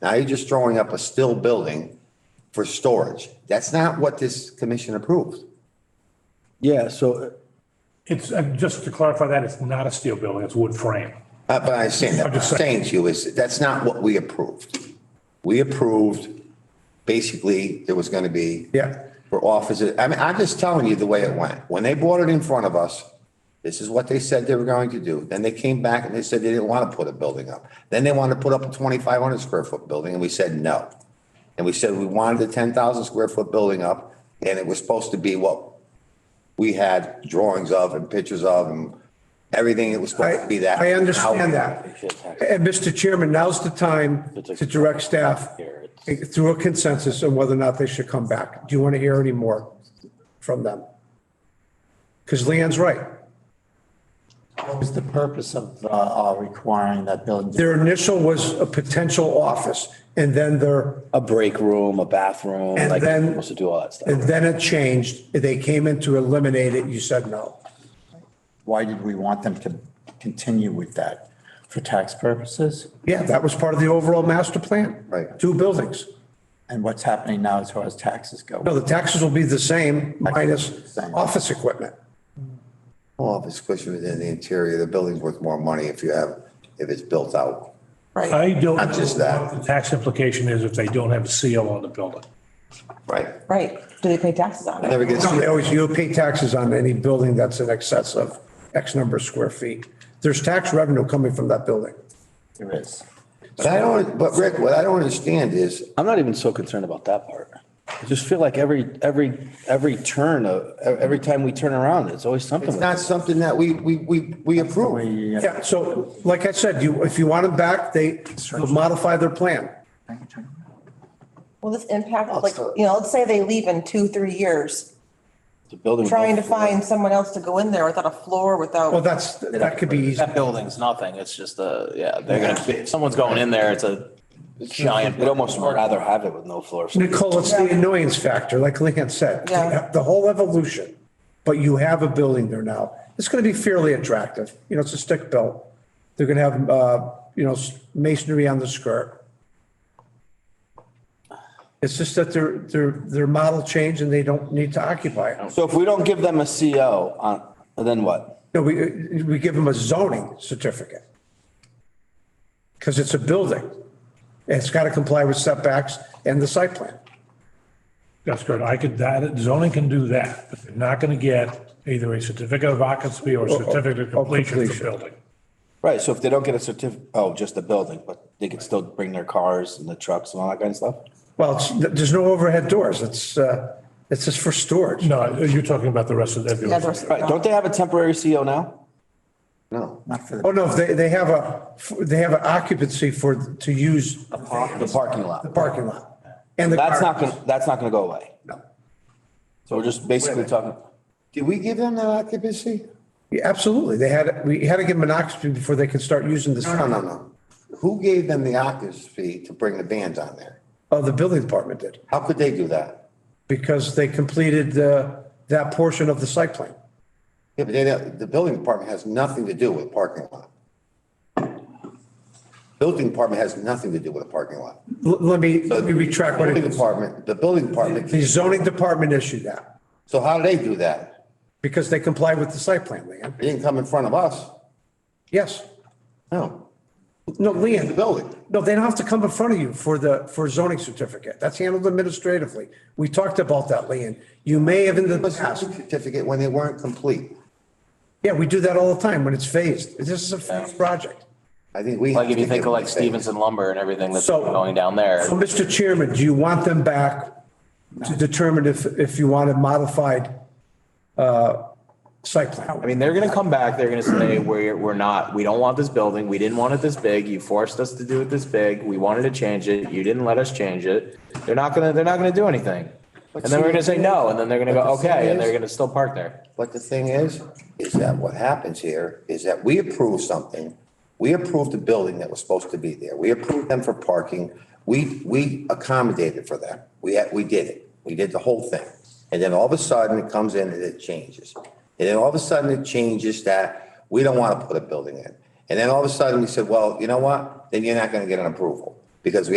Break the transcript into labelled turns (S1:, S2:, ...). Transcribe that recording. S1: Now you're just throwing up a still building for storage. That's not what this commission approved.
S2: Yeah, so
S3: It's, uh, just to clarify that, it's not a steel building, it's wood frame.
S1: Uh, But I understand that.
S3: I'm
S1: What I'm
S3: just
S1: saying to you is that's not what we approved. We approved, basically, there was going to be.
S2: Yeah.
S1: For offices. I mean, I'm just telling you the way it went. When they brought it in front of us, this is what they said they were going to do. Then they came back and they said they didn't want to put a building up. Then they wanted to put up a 2,500 square foot building and we said no. And we said we wanted a 10,000 square foot building up and it was supposed to be what we had drawings of and pictures of and everything. It was supposed
S4: I,
S1: to be that.
S4: uh, I
S1: How-
S4: understand that. And Mr. Chairman, now's the time to direct staff through a consensus on whether or not they should come back. Do you want to hear any more from them? Because Leanne's right.
S5: What was the purpose of uh, uh, requiring that building?
S4: Their initial was a potential office and then their,
S6: a break room, a bathroom,
S4: And
S6: like
S4: then-
S6: you're supposed to do all that
S4: and
S6: stuff.
S4: then it changed. They came in to eliminate it. You said no.
S5: Why did we want them to continue with that? For tax purposes?
S4: Yeah, that was part of the overall master plan.
S1: Right.
S4: Two buildings.
S5: And what's happening now as far as taxes go?
S4: No, the taxes will be the same minus office equipment.
S1: Well, if it's squished within the interior, the building's worth more money if you have, if it's built out.
S3: I don't.
S1: Not just
S3: know
S1: that.
S3: what The tax implication is if they don't have a seal on the building.
S1: Right.
S7: Right, do they pay taxes on it?
S1: Never gets,
S4: No, they always, oh, you pay taxes on any building that's in excess of X number of square feet. There's tax revenue coming from that building.
S5: There is.
S1: but I don't, but Rick, what I don't understand is,
S6: I'm not even so concerned about that part. I just feel like every, every, every turn, uh, every time we turn around, it's always something.
S1: it's
S6: with it.
S1: not something that we, we, we, we approve.
S5: We, uh,
S4: Yeah, so like I said, you, if you want them back, they they'll modify their plan.
S7: Will this impact, like, you know, let's say they leave in two, three years,
S6: The building.
S7: trying to find someone else to go in there without a floor,
S4: Well,
S7: without,
S4: Oh, that's, that could be easy.
S8: That building's nothing. It's just
S6: uh,
S8: a, yeah, they're gonna, if someone's going in there, it's a giant.
S6: We'd almost rather have it with no floor.
S4: Nicole, it's the annoyance factor, like Leanne said.
S7: Yeah.
S4: The whole evolution, but you have a building there now. It's going to be fairly attractive. You know, it's a stick built. They're going to have, uh, you know, masonry on the skirt. It's just that their, their, their model changed and they don't need to occupy it.
S6: So if we don't give them a CO on, then what?
S4: No, we, uh, we give them a zoning certificate. Because it's a building. It's got to comply with setbacks and the site plan.
S3: That's good. I could, that, zoning can do that, but they're not gonna get either a certificate of occupancy or a certificate of
S4: Or- or
S3: completion for
S4: completion.
S3: building.
S6: Right, so if they don't get a certif, oh, just the building, but they could still bring their cars and the trucks and all that kind of stuff?
S4: Well, it's, there's no overhead doors. It's, uh, it's just for storage.
S3: No, you're talking about the rest of that
S7: yeah, the
S3: building.
S7: rest of
S6: Right, don't they have a temporary CO now?
S1: No.
S5: Not for
S4: Oh,
S5: the,
S4: no, they, they have a, they have an occupancy for, to use
S6: The parking lot.
S4: the parking lot. And the
S6: That's not
S4: car.
S6: gonna, that's not gonna go away.
S4: No.
S6: So we're just basically talking,
S1: Did we give them that occupancy?
S4: Yeah, Absolutely. They had, we had to give them an occupancy before they could start using this.
S1: No, no, no. Who gave them the occupancy to bring the bands on there?
S4: Oh, the building department did,
S1: How could they do that?
S4: because they completed, uh, that portion of the site plan.
S1: Yeah, but they, don't- the building department has nothing to do with parking lot. Building department has nothing to do with a parking lot.
S4: L- Let me, let me retract what
S1: Building
S4: it,
S1: department, the building department,
S4: the zoning department issued that,
S1: so how do they do that?
S4: because they complied with the site plan, Leanne.
S1: They didn't come in front of us.
S4: Yes.
S1: No.
S4: No,
S1: The
S4: Leanne.
S1: building.
S4: No, they don't have to come in front of you for the, for zoning certificate. That's handled administratively. We talked about that, Leon. You may have in the
S1: Give us a
S4: past.
S1: certificate when they weren't complete.
S4: Yeah, we do that all the time when it's phased. This is a phased project.
S1: I think we.
S8: Like
S1: have
S8: if you
S1: to
S8: think
S1: give
S8: of
S1: them
S8: like
S1: a
S8: Stevenson lumber and everything that's
S4: So-
S8: going down there.
S4: So, Mr. Chairman, do you want them back to determine if, if you want a modified, uh, site plan?
S8: I mean, they're gonna come back, they're gonna say, we're, we're not, we don't want this building, we didn't want it this big, you forced us to do it this big, we wanted to change it, you didn't let us change it. They're not gonna, they're not gonna do anything. And then we're gonna say no, and then they're gonna go,
S1: But the thing
S8: okay, and they're
S1: is-
S8: gonna still park there.
S1: But the thing is, is that what happens here is that we approve something. We approved the building that was supposed to be there. We approved them for parking. We, we accommodated for them. We, had- we did it. We did the whole thing. And then all of a sudden it comes in and it changes. And then all of a sudden it changes that we don't want to put a building in. And then all of a sudden we said, well, you know what? Then you're not going to get an approval because we